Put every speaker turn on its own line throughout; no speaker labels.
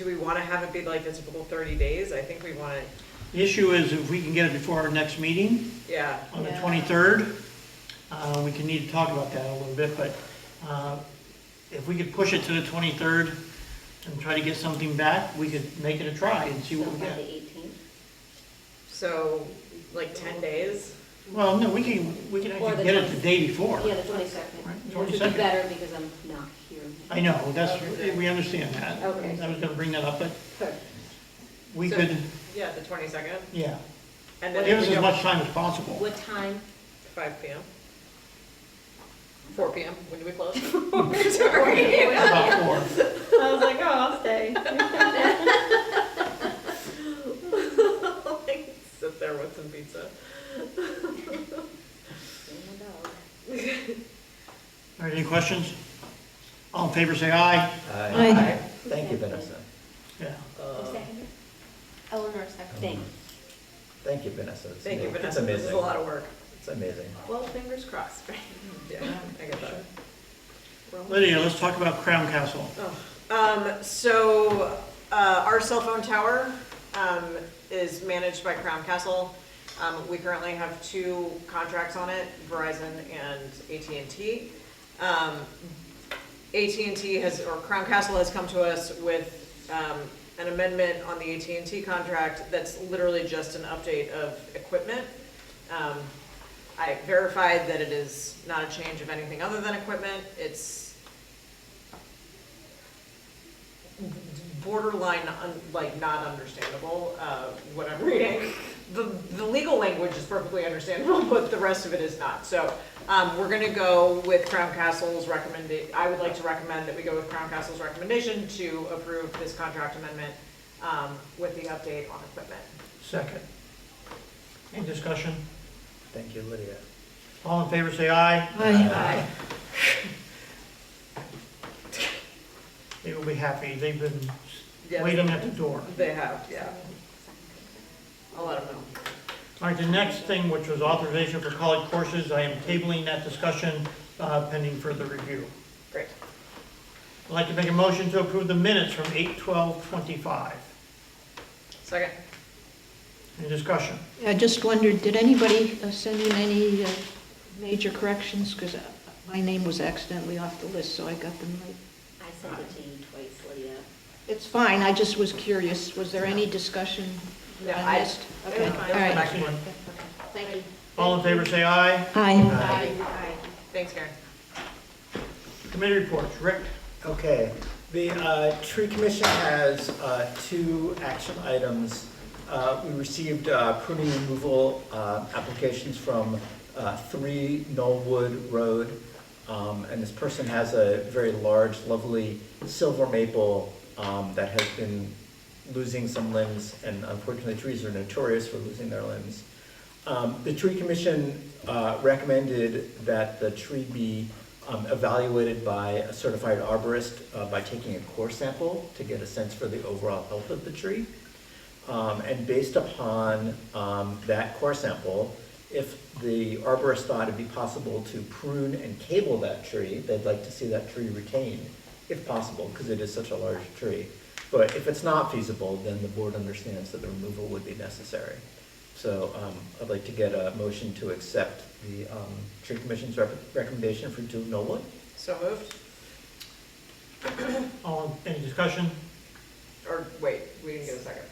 Do we want to have it be like the typical 30 days? I think we want to,
The issue is if we can get it before our next meeting
yeah,
on the
Yeah.
23rd, uh, we can need to talk about that a little bit, but uh, if we could push it to the 23rd and try to get something back, we could make it a try and see what we
By the
get.
eighteenth?
so like 10 days?
Well, no, we can, we can
Or
actually
the
get it the
20th.
day before.
Yeah, the twenty-second.
Right,
Which would
22nd.
be better because I'm not here.
I know, that's,
Okay.
we understand that.
Okay.
I was gonna bring that up, but
Good.
we
So-
could,
Yeah, the 22nd?
yeah,
And then
give
if
us
we
as
go
much time as possible.
What time?
5 PM? 4 PM, when do we close? Sorry. I
About four.
was like, oh.
Stay.
Like, Sit there with some pizza.
All right, any questions? All in favor, say aye.
Aye. Thank you,
Second.
Vanessa.
Yeah.
Um,
Eleanor, second. Thanks.
Thank you, Vanessa. It's
Thank you,
ama-
Vanessa, this is
It's
a lot
amazing.
of work.
It's amazing.
Well, fingers crossed, right? Yeah, I get that.
Oh.
We're almost
Lydia, let's talk about Crown Castle.
Um, so, uh, our cell phone tower, um, is managed by Crown Castle. Um, we currently have two contracts on it, Verizon and AT&T. Um, AT&T has, or Crown Castle has come to us with, um, an amendment on the AT&T contract that's literally just an update of equipment. Um, I verified that it is not a change of anything other than equipment. It's borderline, un- like, not understandable, uh, what I'm reading. The, the legal language is perfectly understandable, but the rest of it is not. So, um, we're gonna go with Crown Castle's recommended, I would like to recommend that we go with Crown Castle's recommendation to approve this contract amendment, um, with the update on equipment.
Second. Any discussion?
Thank you, Lydia.
All in favor, say aye.
Uh,
Aye.
They will be happy. They've been
Yeah.
waiting at the door.
They have, yeah.
Oh,
I'll let them know.
All right, the next thing, which was authorization for college courses, I am tabling that discussion uh, pending further review.
Great.
I'd like to make a motion to approve the minutes from 8:12:25.
Second.
Any discussion?
I just wondered, did anybody uh, send in any uh, major corrections? Because my name was accidentally off the list, so I got them late.
I sent it to you twice, Lydia.
It's fine, I just was curious, was there any discussion
No,
that
I-
I missed?
it was
Okay,
fine.
all right.
Excellent.
Thank you.
All in favor, say aye.
Aye.
Aye. Aye.
Thanks, Karen.
Committee reports. Rick?
Okay, the uh, tree commission has uh, two action items. Uh, We received uh, pruning removal uh, applications from uh, three Knollwood Road. Um, And this person has a very large, lovely silver maple um, that has been losing some limbs, and unfortunately, trees are notorious for losing their limbs. Um, The tree commission uh, recommended that the tree be um, evaluated by a certified arborist uh, by taking a core sample to get a sense for the overall health of the tree. Um, And based upon um, that core sample, if the arborist thought it'd be possible to prune and cable that tree, they'd like to see that tree retained, if possible, because it is such a large tree. But if it's not feasible, then the board understands that the removal would be necessary. So um, I'd like to get a motion to accept the um, tree commission's rep- recommendation for Duke Nolan.
So moved?
All, any discussion?
Or, wait, we didn't get a second.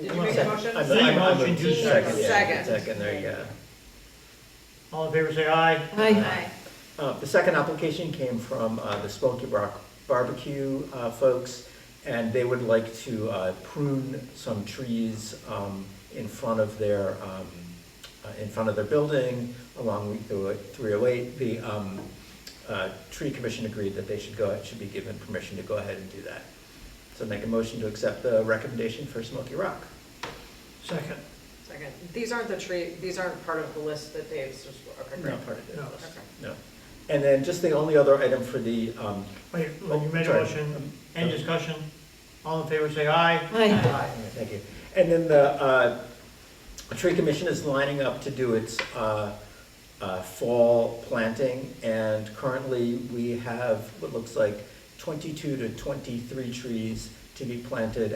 Did
I'm
you
a
make a
sec-
motion?
I'm-
Make
I'm- I'm
motion
a-
to
Second, yeah,
second.
second, there you go.
All in favor, say aye.
Aye.
Uh, The second application came from uh, the Smoky Rock Barbecue uh, folks, and they would like to uh, prune some trees um, in front of their, um, uh, in front of their building along Route 308. The um, uh, tree commission agreed that they should go, should be given permission to go ahead and do that. So make a motion to accept the recommendation for Smoky Rock.
Second.
Second. These aren't the tree, these aren't part of the list that Dave's just, okay, great.
Not part of the
No.
list,
Okay.
no. And then just the only other item for the um,
Wait, you made a
Sorry.
motion. Any discussion? All in favor, say aye.
Aye.
Aye, Thank you. And then the uh, tree commission is lining up to do its uh, uh, fall planting, and currently we have what looks like 22 to 23 trees to to be planted